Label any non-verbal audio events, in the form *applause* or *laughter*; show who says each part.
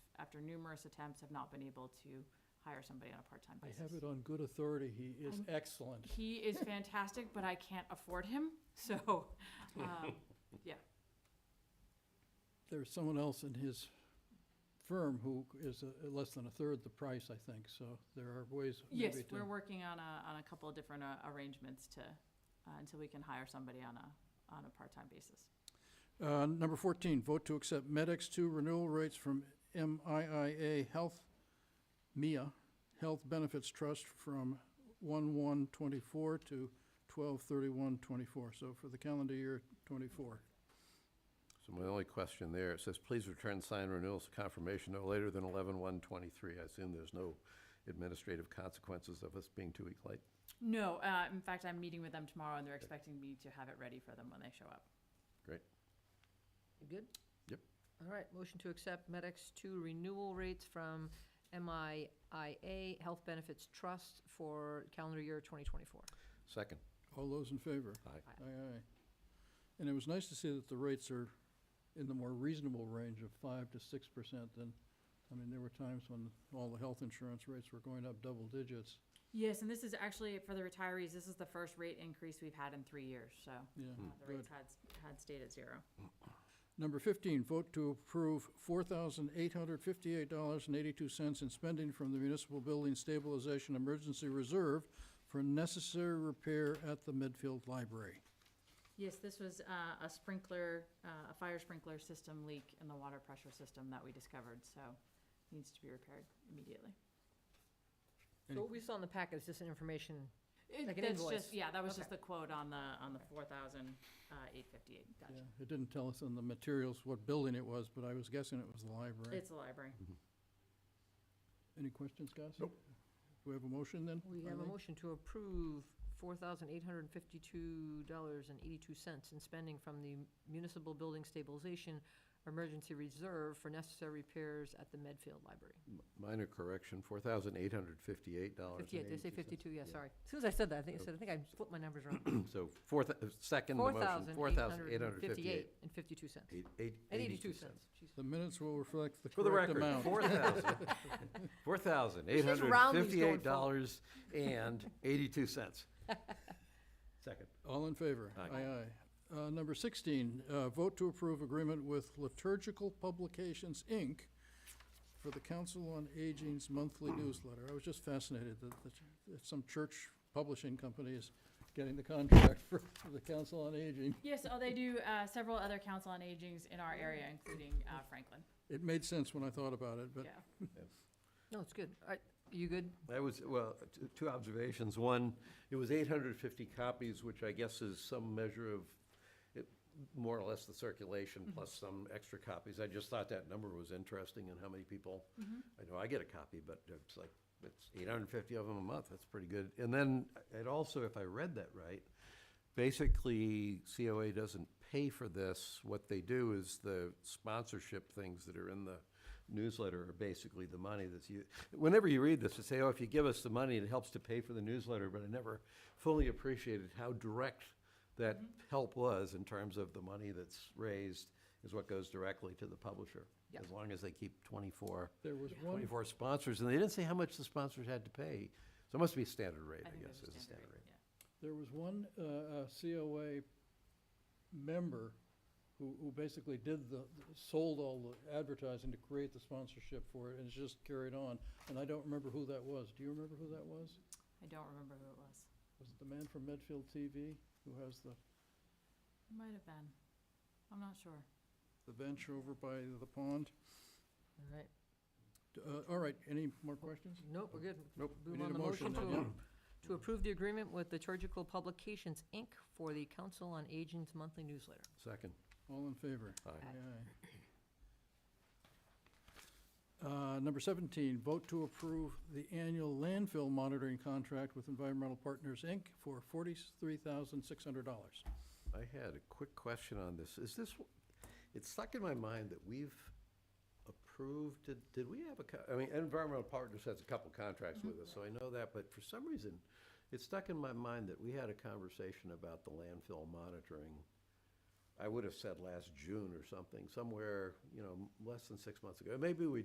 Speaker 1: after numerous attempts, have not been able to hire somebody on a part-time
Speaker 2: I
Speaker 1: basis.
Speaker 2: have it on good authority, he is
Speaker 1: I'm-
Speaker 2: excellent.
Speaker 1: He is fantastic, but I can't afford him, *laughs*
Speaker 2: *laughs*
Speaker 1: so, um,
Speaker 2: There's someone else in his firm who is uh, less than a third the price, I think, so there are ways
Speaker 1: yes,
Speaker 2: maybe to.
Speaker 1: we're working on a, on a couple of different uh, arrangements to, uh, until we can hire somebody on a, on a part-time basis.
Speaker 2: Uh, Number 14, vote to accept Medex 2 renewal rates from MIIA Health, MIA, Health Benefits Trust from 1/1/24 to 12/31/24, so for the calendar year '24.
Speaker 3: So my only question there, it says, please return signed renewals to confirmation no later than eleven one twenty-three. I assume there's no administrative consequences of us being two weeks late.
Speaker 1: No, uh, in fact, I'm meeting with them tomorrow and they're expecting me to have it ready for them when they show up.
Speaker 4: You good?
Speaker 3: Yep.
Speaker 4: All right, motion to accept Medex two renewal rates from MIIA Health Benefits Trust for calendar year twenty twenty-four.
Speaker 3: Second,
Speaker 2: All those in favor?
Speaker 3: Aye.
Speaker 2: Aye, aye. And it was nice to see that the rates are in the more reasonable range of 5 to 6 percent than, I mean, there were times when all the health insurance rates were going up double digits.
Speaker 1: Yes, and this is actually, for the retirees, this is the first rate increase we've had in three years, so
Speaker 2: Yeah,
Speaker 1: uh, the
Speaker 2: Hmm. good.
Speaker 1: rates had, had stayed at zero.
Speaker 2: Number 15, vote to approve $4,858.82 in spending from the Municipal Building Stabilization Emergency Reserve for necessary repair at the Medfield Library.
Speaker 1: Yes, this was uh, a sprinkler, uh, a fire sprinkler system leak in the water pressure system that we discovered, so needs to be repaired immediately.
Speaker 2: Any-
Speaker 4: So what we saw in the packet is just an information, Like an
Speaker 1: That's
Speaker 4: invoice.
Speaker 1: just, yeah, that was
Speaker 4: Okay.
Speaker 1: just the quote on the, on the four thousand uh, eight fifty-eight.
Speaker 2: Yeah, It didn't tell us in the materials what building it was, but I was guessing it was the library.
Speaker 1: It's a library.
Speaker 2: Any questions, guys? Nope. Do we have a motion then?
Speaker 4: we have a
Speaker 2: Eileen?
Speaker 4: motion to approve four thousand eight hundred and fifty-two dollars and eighty-two cents in spending from the Municipal Building Stabilization Emergency Reserve for necessary repairs at the Medfield Library.
Speaker 3: M- minor correction, four thousand eight hundred fifty-eight dollars.
Speaker 4: Fifty-eight, did I say fifty-two? Yeah, sorry. As soon as I said that, I think, I said, I think I flipped my numbers around.
Speaker 3: *clears throat* So four, thou- second the
Speaker 4: Four
Speaker 3: motion,
Speaker 4: thousand
Speaker 3: four thousand eight hundred fifty-eight.
Speaker 4: fifty-eight and fifty-two cents.
Speaker 3: Eight, eight,
Speaker 4: And
Speaker 3: eighty-two
Speaker 4: eighty-two
Speaker 3: cents.
Speaker 4: cents. Jeez.
Speaker 2: The minutes will reflect the
Speaker 3: For the
Speaker 2: correct
Speaker 3: record,
Speaker 2: amount.
Speaker 3: four *laughs* thousand, four thousand eight
Speaker 4: just
Speaker 3: hundred
Speaker 4: round these going
Speaker 3: fifty-eight dollars and eighty-two cents. Second.
Speaker 2: All in favor?
Speaker 3: Aye.
Speaker 2: Aye, Uh, Number 16, uh, vote to approve agreement with Liturgical Publications, Inc. for the Council on Aging's monthly newsletter. I was just fascinated that the ch- that some church publishing company is getting the contract *laughs* for for the Council on Aging.
Speaker 1: Yes, oh, they do uh, several other council on agings in our area, including uh, Franklin,
Speaker 2: It made sense when I thought about it, but
Speaker 1: yeah.
Speaker 4: No, it's good. All right, you good?
Speaker 3: That was, well, t- two observations. One, it was 850 copies, which I guess is some measure of, it- more or less the circulation plus some extra copies. I just thought that number was interesting and how many people, I know I get a copy, but it's like, it's 850 of them a month. That's pretty good. And then, uh, it also, if I read that right, basically COA doesn't pay for this. What they do is the sponsorship things that are in the newsletter are basically the money that's you, whenever you read this, they say, oh, if you give us the money, it helps to pay for the newsletter, but I never fully appreciated how direct that
Speaker 1: Mm-hmm.
Speaker 3: help was in terms of the money that's raised is what goes directly to the publisher.
Speaker 4: Yeah.
Speaker 3: As long as they keep twenty-four,
Speaker 2: there was one,
Speaker 3: twenty-four sponsors, and they didn't say how much the sponsors had to pay. So it must be standard rate,
Speaker 1: I
Speaker 3: I
Speaker 1: think
Speaker 3: guess,
Speaker 1: there's
Speaker 3: is
Speaker 1: a
Speaker 3: the
Speaker 1: standard
Speaker 3: standard
Speaker 1: rate,
Speaker 3: rate.
Speaker 1: yeah.
Speaker 2: there was one uh, uh, COA member who who basically did the, sold all the advertising to create the sponsorship for it, and it's just carried on. And I don't remember who that was. Do you remember who that was?
Speaker 1: I don't remember who it was.
Speaker 2: Was it the man from Medfield TV who has the,
Speaker 1: It might have been. I'm not sure.
Speaker 2: the bench over by the pond?
Speaker 4: All right.
Speaker 2: D- uh, All right, any more questions?
Speaker 4: Nope, we're good.
Speaker 2: Nope. We
Speaker 4: Move
Speaker 2: need
Speaker 4: on
Speaker 2: a
Speaker 4: the
Speaker 2: motion
Speaker 4: motion
Speaker 2: then,
Speaker 4: to-
Speaker 2: yeah.
Speaker 4: To approve the agreement with Liturgical Publications, Inc. for the Council on Aging's monthly newsletter.
Speaker 3: Second,
Speaker 2: All in favor?
Speaker 3: aye.
Speaker 4: Aye.
Speaker 2: Aye, aye. Uh, Number 17, vote to approve the annual landfill monitoring contract with Environmental Partners, Inc. for $43,600.
Speaker 3: I had a quick question on this. Is this, it's stuck in my mind that we've approved, did, did we have a, co- I mean, Environmental Partners has a couple contracts with us, so I know that, but for some reason, it's stuck in my mind that we had a conversation about the landfill monitoring. I would have said last June or something, somewhere, you know, m- less than six months ago. Maybe we